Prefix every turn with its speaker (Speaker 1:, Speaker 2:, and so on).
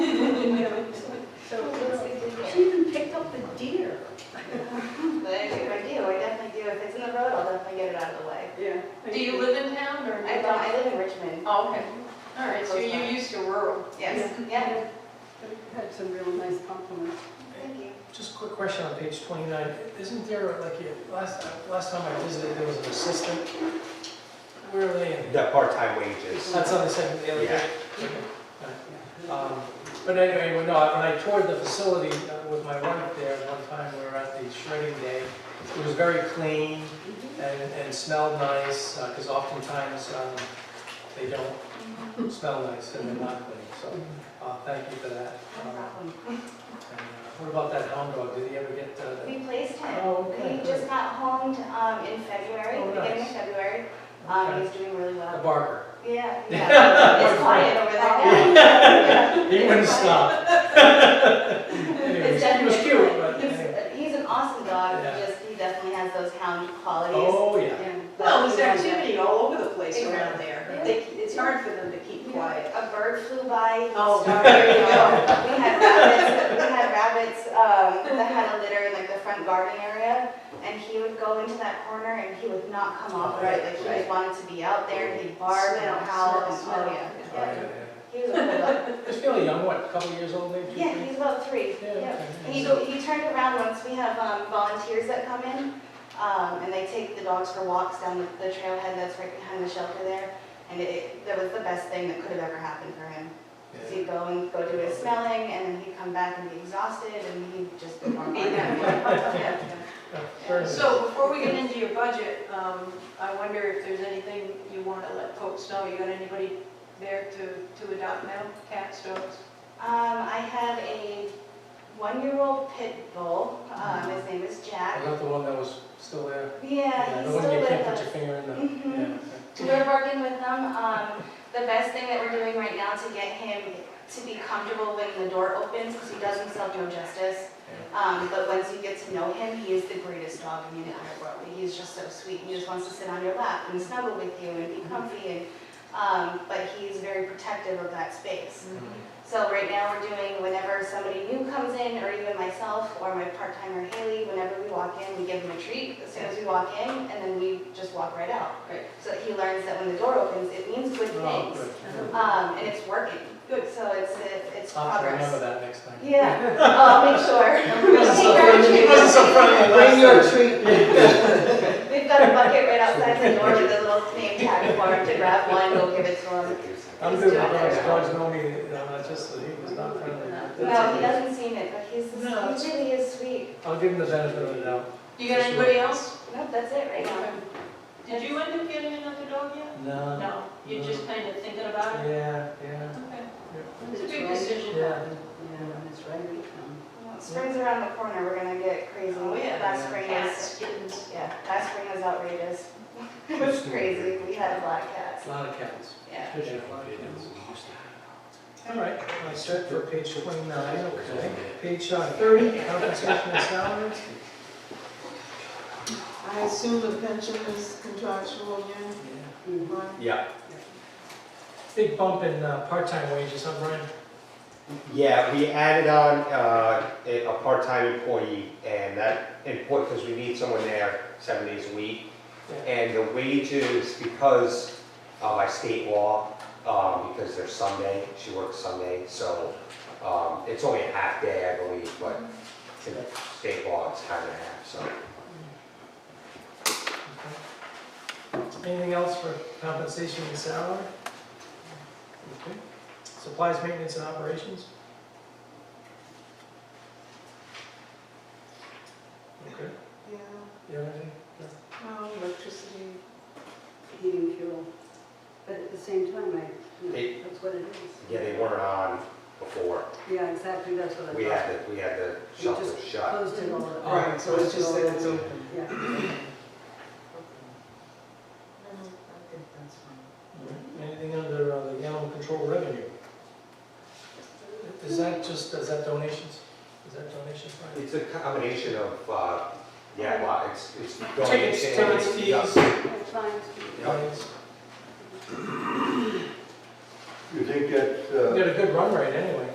Speaker 1: Oh, okay, all right, so you're used to rural.
Speaker 2: Yes, yeah,
Speaker 3: Yeah, Had some real nice compliments.
Speaker 2: thank you.
Speaker 4: Just a quick question on page 29. Isn't there, like, you- last, last time I visited, there was an assistant? Where are they in?
Speaker 5: The part-time wages.
Speaker 4: That's on the second, the other
Speaker 5: Yeah.
Speaker 4: day. Um, But anyway, well, no, when I toured the facility uh, with my wife there one time, we were at the shredding day. It was very clean and, and smelled nice, because oftentimes um, they don't smell nice and they're not clean, so uh, thank you for that. Um, and, uh, What about that hound dog? Did he ever get uh, the
Speaker 2: We placed him.
Speaker 4: Oh, okay,
Speaker 2: He just got homed um, in February,
Speaker 4: Oh,
Speaker 2: beginning of
Speaker 4: nice.
Speaker 2: February. Um,
Speaker 4: Okay.
Speaker 2: He's doing really
Speaker 4: the
Speaker 2: well.
Speaker 4: barker?
Speaker 2: Yeah, yeah. It's quiet over there now.
Speaker 4: He wouldn't stop. Anyway,
Speaker 2: It's
Speaker 4: He was
Speaker 2: definitely-
Speaker 4: cute, but
Speaker 2: he's-
Speaker 4: anyway.
Speaker 2: He's an awesome dog,
Speaker 4: Yeah.
Speaker 2: just, he definitely has those hound qualities.
Speaker 4: oh, yeah.
Speaker 2: And-
Speaker 1: Well, there's activity all over the place around there.
Speaker 2: Yeah.
Speaker 1: They, it's hard for them to keep quiet.
Speaker 2: A bird flew by. he
Speaker 1: Oh,
Speaker 2: started-
Speaker 1: there you go.
Speaker 2: We had rabbits, we had rabbits um, that had a litter in like the front garden area, and he would go into that corner and he would not come off right, like he just wanted to be out there, and he'd bark and howl and,
Speaker 1: Smell,
Speaker 2: oh
Speaker 1: smell,
Speaker 2: yeah.
Speaker 4: All right,
Speaker 2: yeah.
Speaker 4: yeah.
Speaker 2: He was a cool dog.
Speaker 4: He's fairly young, what, a couple years old, maybe? two,
Speaker 2: Yeah,
Speaker 4: three?
Speaker 2: he's about three,
Speaker 4: Yeah,
Speaker 2: yeah.
Speaker 4: okay.
Speaker 2: He, he turned around once, we have um, volunteers that come in, um, and they take the dogs for walks down the the trailhead that's right behind the shelter there, and it- it, that was the best thing that could have ever happened for him. Because
Speaker 4: Yeah.
Speaker 2: he'd go and go do his smelling, and then he'd come back and be exhausted, and he'd just be more.
Speaker 1: Be there.
Speaker 4: Yeah, fair enough.
Speaker 1: So before we get into your budget, um, I wonder if there's anything you want to let folks know? You got anybody there to, to adopt now? Cats, dogs?
Speaker 2: Um, I have a one-year-old pit bull, um, his name is Jack.
Speaker 4: Not the one that was still there?
Speaker 2: Yeah, he's
Speaker 4: The one
Speaker 2: still
Speaker 4: you
Speaker 2: with
Speaker 4: can't put
Speaker 2: us.
Speaker 4: your finger in the,
Speaker 2: Mhm.
Speaker 4: yeah.
Speaker 2: We're
Speaker 4: okay.
Speaker 2: working with them. Um, the best thing that we're doing right now to get him to be comfortable when the door opens, because he does himself no justice. Um, but once you get to know him, he is the greatest dog in the entire world. He's just so sweet. He just wants to sit on your lap and snuggle with you and be comfy and, um, but he's very protective of that space. So right now, we're doing, whenever somebody new comes in, or even myself, or my part-timer Haley, whenever we walk in, we give him a treat as soon as we walk in, and then we just walk right out.
Speaker 1: Great.
Speaker 2: So that he learns that when the door opens, it means good
Speaker 4: Oh,
Speaker 2: things.
Speaker 4: good.
Speaker 2: Um, and it's working. Good. So it's, it's
Speaker 4: I'll have to remember
Speaker 2: progress.
Speaker 4: that next time.
Speaker 2: Yeah, Oh, I'll make sure.
Speaker 4: It wasn't so friendly, it wasn't so friendly last
Speaker 3: Bring your
Speaker 4: time.
Speaker 3: treat.
Speaker 2: We've got a bucket right outside the door with a little name tag for him to grab one, go give it to him.
Speaker 4: I'm
Speaker 2: He's
Speaker 4: good with
Speaker 2: doing
Speaker 4: dogs,
Speaker 2: it.
Speaker 4: dogs know me, you know, it's just that he was not friendly.
Speaker 2: No, he doesn't seem it, but he's,
Speaker 4: No.
Speaker 2: he really is sweet.
Speaker 4: I'll give him the benefit of the doubt.
Speaker 1: You got anybody else?
Speaker 2: Nope, that's it right now.
Speaker 1: Did you end up getting another dog yet?
Speaker 4: No.
Speaker 1: No, you're just kind of thinking about it?
Speaker 4: Yeah, yeah.
Speaker 1: Okay.
Speaker 3: When
Speaker 1: It's a
Speaker 3: it's
Speaker 1: big
Speaker 3: right,
Speaker 1: decision.
Speaker 4: Yeah.
Speaker 3: yeah, when it's right, um, we come.
Speaker 2: Well, Spring's around the corner, we're gonna get crazy.
Speaker 1: Oh, yeah.
Speaker 2: Last spring was,
Speaker 1: Cats, kittens.
Speaker 2: yeah, last spring was outrageous. It was crazy, we had a lot of cats,
Speaker 4: A lot of cats.
Speaker 2: yeah.
Speaker 4: Good, yeah, a lot of cats. All right, I set for page 29, okay. Page uh, 30, compensation and salaries.
Speaker 6: I assume the pension is contractual again,
Speaker 2: Mm-hmm.
Speaker 6: right?
Speaker 5: Yeah,
Speaker 4: Big bump in uh, part-time wages, huh, Brian?
Speaker 5: yeah, we added on uh, a a part-time employee, and that employee, because we need someone there seven days a week. And the wages, because uh, by state law, um, because they're Sunday, she works Sunday, so um, it's only a half day, I believe, but in state law, it's kind of half, so.
Speaker 4: Okay. Anything else for compensation and salary? Okay. Supplies, maintenance, and operations? Okay,
Speaker 6: Yeah,
Speaker 4: you have anything?
Speaker 1: Um,
Speaker 6: no, electricity,
Speaker 3: Heating fuel. But at the same time, I, you
Speaker 5: They-
Speaker 3: know, that's what it is.
Speaker 5: Yeah, they weren't on before.
Speaker 3: Yeah, exactly, that's what I thought.
Speaker 5: We had the, we had the
Speaker 3: We
Speaker 5: shelter
Speaker 3: just
Speaker 5: shut.
Speaker 3: Closed it all up.
Speaker 6: Right, so it's just that uh, it's open.
Speaker 3: Yeah.
Speaker 6: no, I think that's fine.
Speaker 4: Anything under uh, the animal control revenue? Is that just, is that donations? Is that donations, Brian?
Speaker 5: It's a combination of, uh, yeah, well, it's, it's.
Speaker 4: Tickets, tickets,
Speaker 5: donations, yeah.
Speaker 4: fees.
Speaker 3: That's fine.
Speaker 5: Yeah.
Speaker 4: Yes.
Speaker 7: You think that,
Speaker 4: We
Speaker 7: uh,
Speaker 5: uh,
Speaker 4: got a good run rate anyway.